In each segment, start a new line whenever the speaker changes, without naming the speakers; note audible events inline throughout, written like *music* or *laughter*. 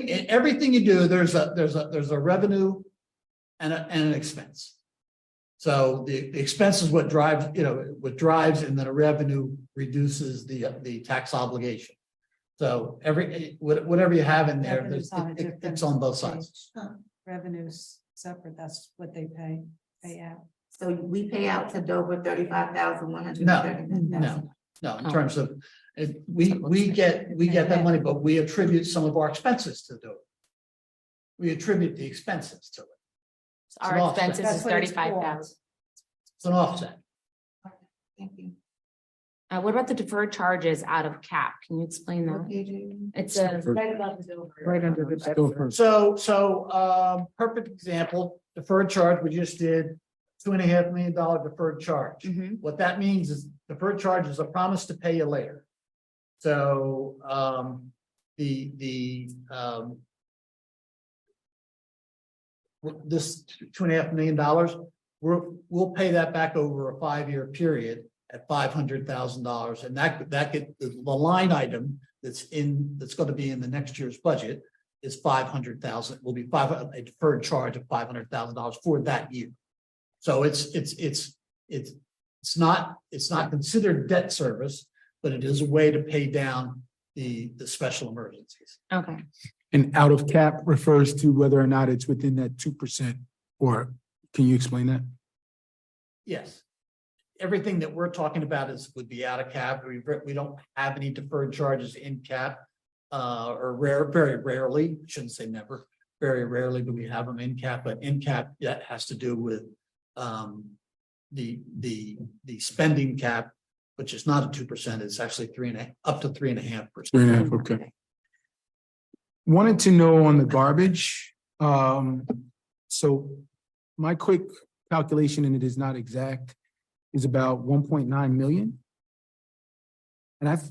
in everything you do, there's a, there's a, there's a revenue and a, and an expense. So the, the expense is what drives, you know, what drives and then a revenue reduces the, the tax obligation. So every, eh, what- whatever you have in there,
Revenue's
there's-
on a
it- it-
different
it's on both sides.
page. Revenues separate, that's what they pay, pay out.
So we pay out to Dover thirty-five thousand, one hundred
No,
and thirty-nine thousand.
No, in
Oh.
terms of, it, we, we get, we get that money, but we attribute some of our expenses to do it. We attribute the expenses to it.
Our
It's an offset.
expenses is
That's what it's for.
thirty-five thousand.
It's an offset.
Thank you.
Uh, what about the deferred charges out of cap? Can you explain
What
that?
page are you
It's a.
on? Right above the Dover.
Right under the
Go first.
So, so, um, perfect example, deferred charge, we just did two and a half million dollar deferred charge.
Mhm.
What that means is deferred charge is a promise to pay you later. So, um, the, the, um. with This two and a half million dollars, we're, we'll pay that back over a five-year period at five hundred thousand dollars. And that, that could, the line item that's in, that's gonna be in the next year's budget is five hundred thousand, will be five, a deferred charge of five hundred thousand dollars for that year. So it's, it's, it's, it's, it's not, it's not considered debt service, but it is a way to pay down the, the special emergencies.
Okay,
And out of cap refers to whether or not it's within that two percent, or can you explain that?
Yes. Everything that we're talking about is, would be out of cap. We, we don't have any deferred charges in cap. Uh, or rare, very rarely, shouldn't say never, very rarely do we have them in cap, but in cap, that has to do with. Um, the, the, the spending cap, which is not a two percent, it's actually three and a, up to three and a half percent.
Three and a half, okay. Wanted to know on the garbage, um, so my quick calculation, and it is not exact, is about one point nine million. And I've,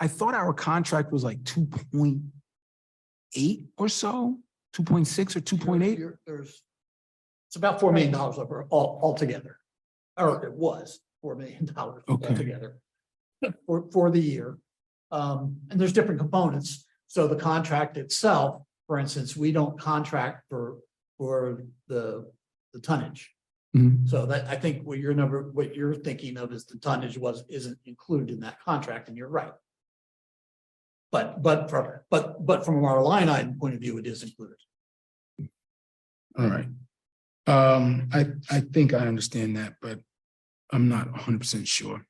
I thought our contract was like two point eight or so, two point six or two point eight.
You're- There's, it's about four million dollars over all, altogether. Or it was four million *laughs* dollars
Okay.
altogether. For, for the year. Um, and there's different components. So the contract itself, for instance, we don't contract for, for the, the tonnage.
Mhm.
So that, I think what your number, what you're thinking of is the tonnage was, isn't included in that contract, and you're right. But, but, from- but, but from our line item point of view, it is included.
All right. Um, I, I think I understand that, but I'm not hundred percent sure.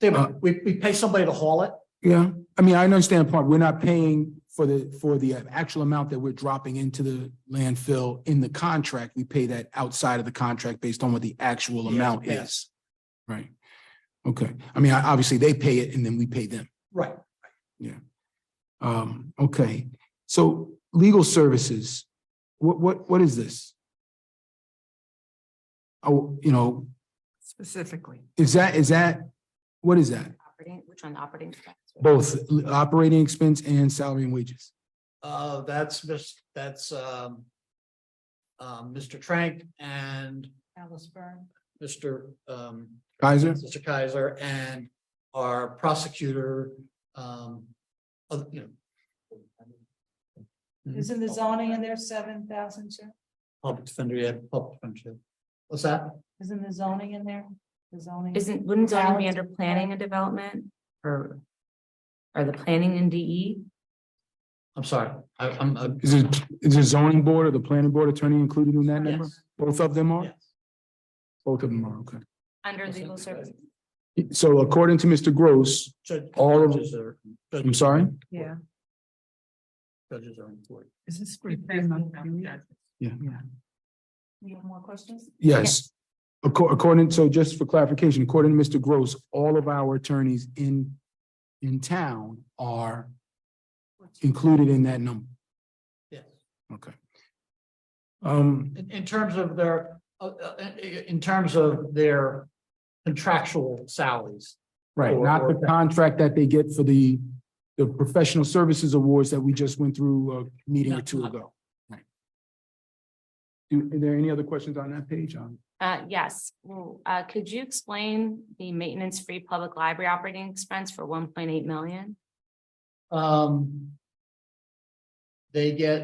They,
Uh,
we, we pay somebody to haul it,
Yeah, I mean, I understand part, we're not paying for the, for the actual amount that we're dropping into the landfill in the contract. We pay that outside of the contract based on what the actual
Yes,
amount
yes.
is. Right. Okay. I mean, I- obviously they pay it and then we pay them.
right,
Um, okay. So legal services, what, what, what is this? Oh, you know,
Specifically.
Is that, is that, what is that?
operating, which one, operating? expense?
Both l- operating expense and salary and wages?
uh, that's, mis- that's, um. Um, Mr. Trank and
Alice Byrne.
Mr. Um,
Kaiser?
Mr. Kaiser and our prosecutor, um, other- you know.
Isn't the zoning in there seven thousand too?
Public defender, yeah, public defender. What's that?
Isn't the zoning in there? The zoning.
Isn't, wouldn't zoning be under planning and development or? Or the planning and E? DE?
I'm sorry, I, I'm, I'm.
Is it, is it zoning board or the planning board attorney included in that number?
Yes,
Both of them are?
yes.
Both of them are, okay.
Under legal services.
So according to Mr. Gross,
Judge-
All of-
judges are-
I'm sorry?
Yeah. Judges are important.
Is this?
You have more questions?
Yes. Acco- According, so just for clarification, according to Mr. Gross, all of our attorneys in, in town are included in that number.
Yes.
Okay. Um,
In, in terms of their, uh, uh, i- i- in terms of their contractual salaries.
Right,
Or-
not
or-
the contract that they get for the, the professional services awards that we just went through a meeting or
Not-
two
not-
ago. Right. Do, are there any other questions on that page? Um,
Uh, yes, well, uh, could you explain the maintenance-free public library operating expense for one point eight million?
Um. they get